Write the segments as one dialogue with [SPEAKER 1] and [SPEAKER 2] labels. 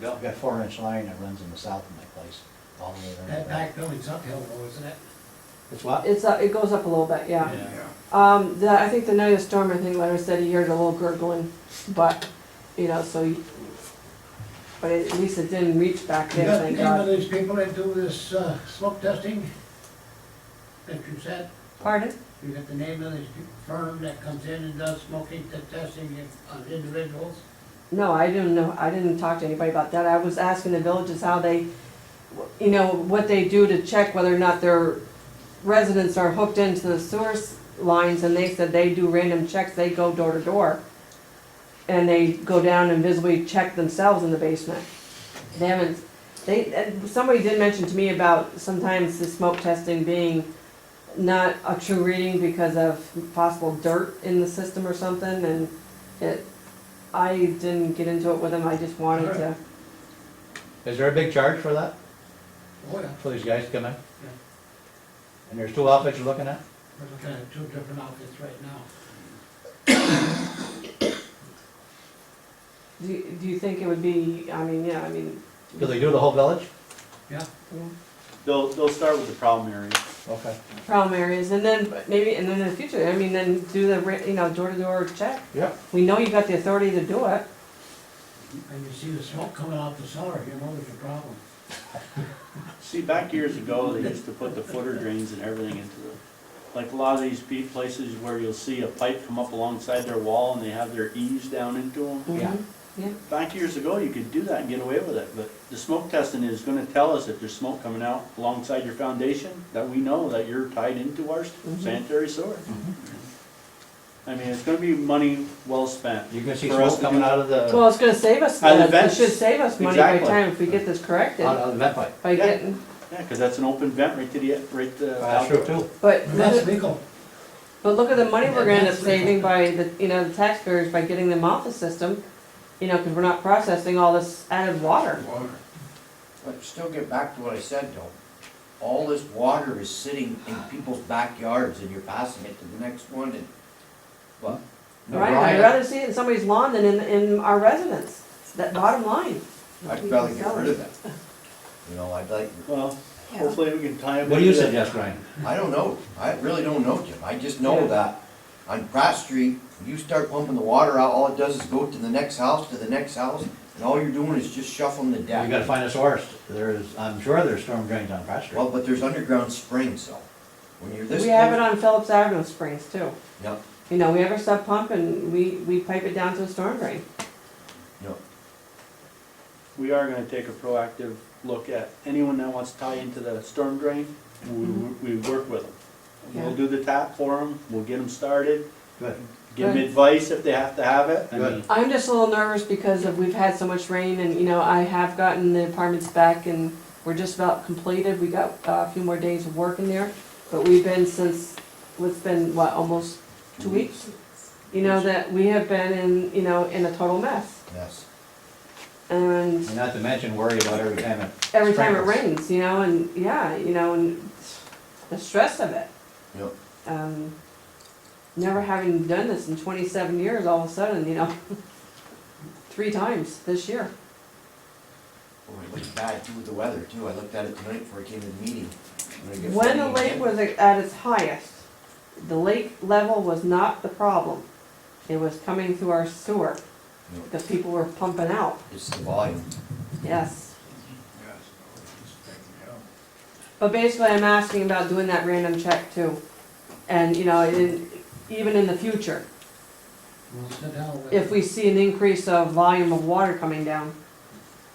[SPEAKER 1] Yeah.
[SPEAKER 2] I've got four inch line that runs in the south of my place, all the way around.
[SPEAKER 3] That back building's uphill though, isn't it?
[SPEAKER 2] It's what?
[SPEAKER 4] It's, uh, it goes up a little bit, yeah.
[SPEAKER 3] Yeah.
[SPEAKER 4] Um, the, I think the night of the storm, I think Larry said he heard a little gurgling, but, you know, so, you- but at least it didn't reach back
[SPEAKER 3] You
[SPEAKER 4] there,
[SPEAKER 3] got the
[SPEAKER 4] thank
[SPEAKER 3] name of
[SPEAKER 4] God.
[SPEAKER 3] these people that do this uh, smoke testing that you said?
[SPEAKER 4] Pardon?
[SPEAKER 3] You got the name of this firm that comes in and does smoking te- testing on individuals?
[SPEAKER 4] No, I didn't know, I didn't talk to anybody about that. I was asking the villages how they, you know, what they do to check whether or not their residents are hooked into the sewer s- lines, and they said they do random checks, they go door to door. And they go down and visibly check themselves in the basement. They haven't, they, and somebody did mention to me about sometimes the smoke testing being not a true reading because of possible dirt in the system or something, and it, I didn't get into it with them, I just wanted to.
[SPEAKER 2] Is there a big charge for that,
[SPEAKER 3] Oh, yeah.
[SPEAKER 2] for these guys to come in? And there's two outfits you're looking at?
[SPEAKER 3] We're looking at two different outfits right now.
[SPEAKER 4] Do, you- do you think it would be, I mean, yeah, I mean,
[SPEAKER 2] Do they do the whole village?
[SPEAKER 3] Yeah,
[SPEAKER 1] They'll, they'll start with the problem area.
[SPEAKER 2] Okay.
[SPEAKER 4] problem areas, and then maybe, and then in the future, I mean, then do the, ra- you know, door-to-door check.
[SPEAKER 2] Yep.
[SPEAKER 4] We know you got the authority to do it.
[SPEAKER 3] and you see the smoke coming out the cellar, you know there's a problem.
[SPEAKER 1] See, back years ago, they used to put the footer drains and everything into the, like a lot of these pe- places where you'll see a pipe come up alongside their wall and they have their eaves down into them.
[SPEAKER 2] Yeah.
[SPEAKER 4] Mhm. Yeah,
[SPEAKER 1] Back years ago, you could do that and get away with it, but the smoke testing is gonna tell us if there's smoke coming out alongside your foundation, that we know that you're tied into our sanitary sewer. I mean, it's gonna be money well spent.
[SPEAKER 2] You can see
[SPEAKER 1] For
[SPEAKER 2] smoke
[SPEAKER 1] us to
[SPEAKER 2] coming
[SPEAKER 1] do-
[SPEAKER 2] out of the,
[SPEAKER 4] well, it's gonna save us,
[SPEAKER 1] And
[SPEAKER 4] it
[SPEAKER 1] events.
[SPEAKER 4] should save us money by
[SPEAKER 1] Exactly. Uh,
[SPEAKER 4] time if we get this corrected,
[SPEAKER 2] out of the vent pipe.
[SPEAKER 4] by
[SPEAKER 1] Yeah.
[SPEAKER 4] getting,
[SPEAKER 1] Yeah, cause that's an open vent right to the, right to.
[SPEAKER 2] That's true too.
[SPEAKER 4] but.
[SPEAKER 3] But
[SPEAKER 4] look
[SPEAKER 3] That's
[SPEAKER 4] at-
[SPEAKER 3] legal.
[SPEAKER 4] But look at the money we're gonna end up
[SPEAKER 3] That's-
[SPEAKER 4] saving by the, you know, the taxpayers by getting them off the system, you know, cause we're not processing all this added water.
[SPEAKER 5] But still get back to what I said though. All this water is sitting in people's backyards and you're passing it to the next one and, well. no,
[SPEAKER 4] Right, I'd
[SPEAKER 5] Ryan,
[SPEAKER 4] rather see it in somebody's lawn than in, in our residents, It's that bottom line.
[SPEAKER 5] I'd rather get rid of that. You know, I'd like,
[SPEAKER 1] Well,
[SPEAKER 4] Yeah.
[SPEAKER 1] hopefully we can tie it.
[SPEAKER 2] What do you
[SPEAKER 1] into that.
[SPEAKER 2] suggest, Ryan?
[SPEAKER 5] I don't know. I really don't know, Jim. I just know that on Pratt Street, you start pumping the water out, all it does is go to the next house, to the next house, and all you're doing is just shuffling the
[SPEAKER 2] You gotta
[SPEAKER 5] deck.
[SPEAKER 2] find a source. There's, I'm sure there's storm drains on Pratt Street.
[SPEAKER 5] Well, but there's underground springs, so when you're this.
[SPEAKER 4] We have it
[SPEAKER 5] close-
[SPEAKER 4] on Phillips Avenue Springs too,
[SPEAKER 5] No,
[SPEAKER 4] you know, we have our sub pump and we, we pipe it down to a storm drain.
[SPEAKER 5] no.
[SPEAKER 1] We are gonna take a proactive look at anyone that wants to tie into the storm drain, we, we work with them. We'll
[SPEAKER 4] Mm-hmm. Yeah.
[SPEAKER 1] do the tap for them, we'll get them started,
[SPEAKER 2] Good.
[SPEAKER 1] give them
[SPEAKER 4] Good.
[SPEAKER 1] advice if they have to have it. I
[SPEAKER 2] Good.
[SPEAKER 1] mean,
[SPEAKER 4] I'm just a little nervous because of, we've had so much rain and, you know, I have gotten the apartments back and we're just about completed. We got uh, a few more days of work in there, but we've been since, it's been, what, almost two weeks? You know, that we have been in, you know, in a total mess.
[SPEAKER 5] Yes.
[SPEAKER 4] And
[SPEAKER 2] And not to mention worry about every time it.
[SPEAKER 4] every time it
[SPEAKER 2] sprinkles.
[SPEAKER 4] rains, you know, and, yeah, you know, and the stress of it.
[SPEAKER 5] Yep.
[SPEAKER 4] Um, never having done this in twenty-seven years, all of a sudden, you know, three times this year.
[SPEAKER 5] Boy, it looks bad too with the weather too, I looked at it tonight before I came to the meeting. I'm gonna get
[SPEAKER 4] When the
[SPEAKER 5] flooding
[SPEAKER 4] lake
[SPEAKER 5] again.
[SPEAKER 4] was at its highest, the lake level was not the problem. It was coming through our sewer,
[SPEAKER 5] No,
[SPEAKER 4] the people were pumping out,
[SPEAKER 5] It's the volume,
[SPEAKER 4] yes. But basically, I'm asking about doing that random check too. And, you know, in, even in the future,
[SPEAKER 3] We'll sit down with.
[SPEAKER 4] if we see an increase of volume of water coming down.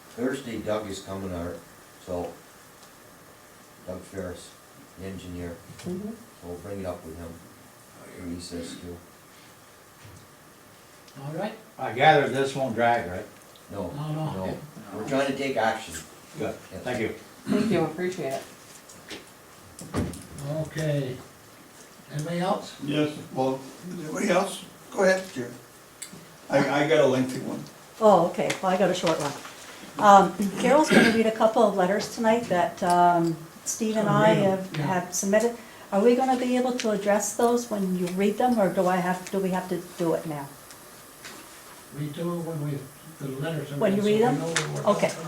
[SPEAKER 5] Thursday Doug is coming out, so Doug Ferris, the engineer, so we'll bring it up with him, what he says too.
[SPEAKER 3] All right?
[SPEAKER 2] I gather this won't drag, right?
[SPEAKER 5] No,
[SPEAKER 3] No, no.
[SPEAKER 5] no, we're trying to take action.
[SPEAKER 2] Good.
[SPEAKER 5] Yes.
[SPEAKER 2] Thank you.
[SPEAKER 4] Thank you, appreciate it.
[SPEAKER 3] Okay. Anybody else?
[SPEAKER 6] Yes, well, does anybody else? Go ahead, Jerry. I, I got a lengthy one.
[SPEAKER 7] Oh, okay, well, I got a short one. Um, Carol's gonna read a couple of letters tonight that um, Steve and I have
[SPEAKER 3] Yeah.
[SPEAKER 7] have submitted. Are we gonna be able to address those when you read them, or do I have, do we have to do it now?
[SPEAKER 3] We do it when we the letters.
[SPEAKER 7] When you read them?
[SPEAKER 3] so we know what-
[SPEAKER 7] Okay.